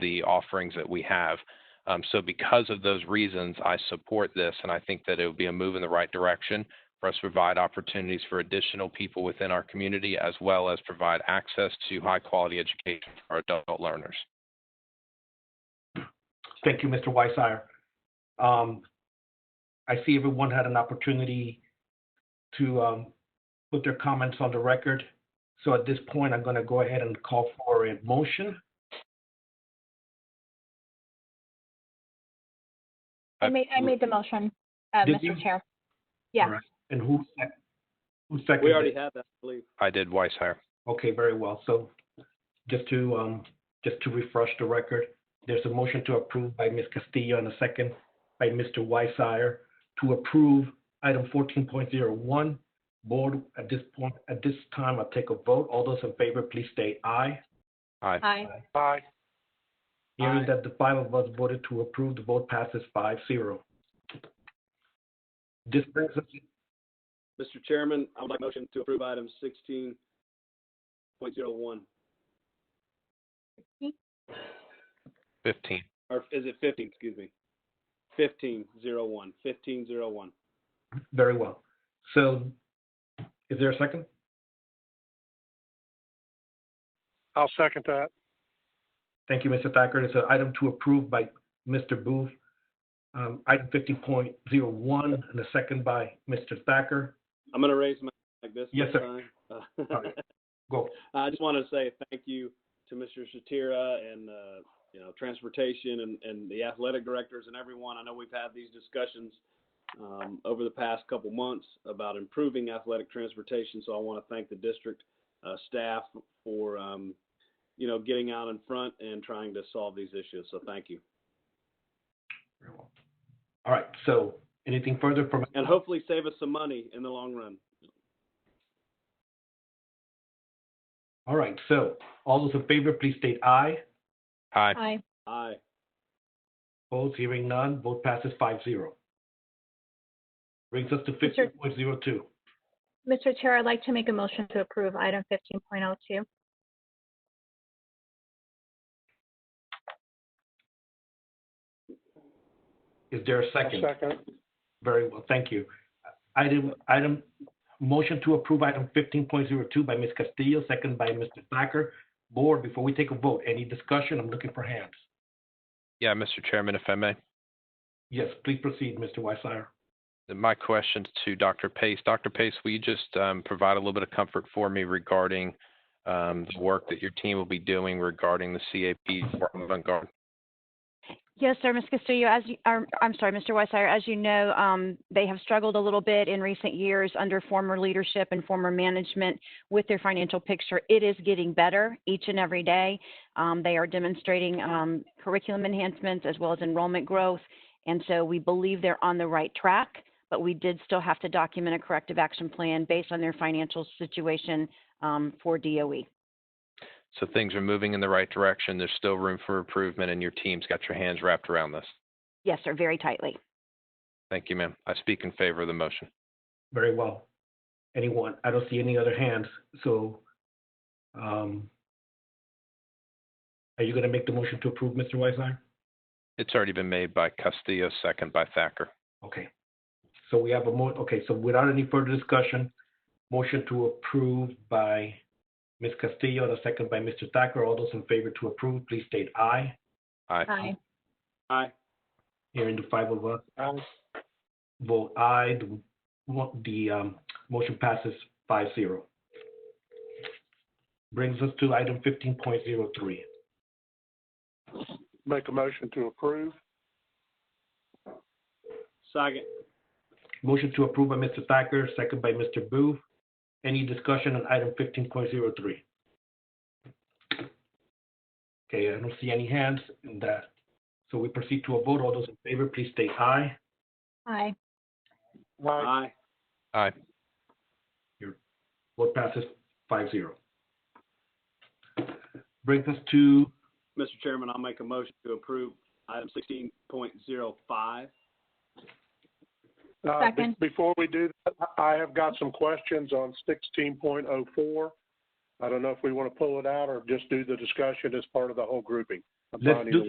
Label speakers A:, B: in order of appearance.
A: the offerings that we have. Um, so because of those reasons, I support this, and I think that it would be a move in the right direction for us to provide opportunities for additional people within our community, as well as provide access to high-quality education for our adult learners.
B: Thank you, Mr. Weiser. Um, I see everyone had an opportunity to um, put their comments on the record. So at this point, I'm going to go ahead and call for a motion.
C: I made, I made the motion, uh,
B: Did
C: Mr.
B: you?
C: Chair. Yeah.
B: Alright, And who, sec- who seconded?
D: We
B: it?
D: already have that, I believe.
A: I did Weishire.
B: Okay, very well. So just to, um, just to refresh the record, there's a motion to approve by Ms. Castillo and a second by Mr. Weissier to approve item fourteen point zero one. Board, at this point, at this time, I'll take a vote. All those in favor, please state aye.
A: Aye.
C: Aye.
A: Aye.
B: Hearing
D: Aye.
B: that the five of us voted to approve, the vote passes five zero. This brings us,
D: Mr. Chairman, I would like a motion to approve item sixteen point zero one,
A: Fifteen.
D: or is it fifteen, excuse me? Fifteen zero one, fifteen zero one.
B: very well. So is there a second?
E: I'll second that.
B: Thank you, Mr. Thacker. It's an item to approve by Mr. Booth. Um, item fifty point zero one and a second by Mr. Thacker.
D: I'm gonna raise my, like this.
B: Yes,
D: this
B: sir.
D: time.
B: All right. Go.
D: I just want to say thank you to Mr. Shatira and, uh, you know, transportation and, and the athletic directors and everyone. I know we've had these discussions um, over the past couple months about improving athletic transportation. So I want to thank the district uh, staff for, um, you know, getting out in front and trying to solve these issues. So thank you.
B: All right, so anything further from,
D: And hopefully save us some money in the long run.
B: all right, so all those in favor, please state aye.
A: Aye.
C: Aye.
D: Aye.
B: Opposed, hearing none, vote passes five zero. Brings us to fifty
C: Mr.
B: point zero two.
C: Mr. Chair, I'd like to make a motion to approve item fifteen point oh two.
B: Is there a
E: I'll
B: second?
E: second.
B: Very well, thank you. Item, item, motion to approve item fifteen point zero two by Ms. Castillo, second by Mr. Thacker. Board, before we take a vote, any discussion? I'm looking for hands.
A: Yeah, Mr. Chairman, if I may.
B: Yes, please proceed, Mr. Weissier.
A: my questions to Dr. Pace. Dr. Pace, will you just um, provide a little bit of comfort for me regarding um, the work that your team will be doing regarding the CAP for avant garde?
F: Yes, sir, Ms. Castillo, as you, or, I'm sorry, Mr. Weissier, as you know, um, they have struggled a little bit in recent years under former leadership and former management with their financial picture. It is getting better each and every day. Um, they are demonstrating um, curriculum enhancements as well as enrollment growth. And so we believe they're on the right track, but we did still have to document a corrective action plan based on their financial situation um, for DOE.
A: So things are moving in the right direction. There's still room for improvement, and your team's got your hands wrapped around this.
F: Yes, sir, very tightly.
A: Thank you, ma'am. I speak in favor of the motion.
B: Very well. Anyone? I don't see any other hands, so, um, are you gonna make the motion to approve, Mr. Weissier?
A: It's already been made by Castillo, second by Thacker.
B: Okay. So we have a mo, okay, so without any further discussion, motion to approve by Ms. Castillo and a second by Mr. Thacker. All those in favor to approve, please state aye.
A: Aye.
C: Aye.
D: Aye.
B: Hearing the five of us vote aye, the, mo- the, um, motion passes five zero. Brings us to item fifteen point zero three.
E: Make a motion to approve.
D: Second.
B: Motion to approve by Mr. Thacker, second by Mr. Booth. Any discussion on item fifteen point zero three? Okay, I don't see any hands in that. So we proceed to a vote. All those in favor, please state aye.
C: Aye.
D: Aye.
A: Aye.
B: Vote passes 5-0. Brings us to,
D: Mr. Chairman, I'll make a motion to approve item sixteen point zero five.
E: Uh, be-
C: Second.
E: Before we do that, I- I have got some questions on sixteen point oh four. I don't know if we want to pull it out or just do the discussion as part of the whole grouping. I'm
B: Let's
E: finding
B: do
E: the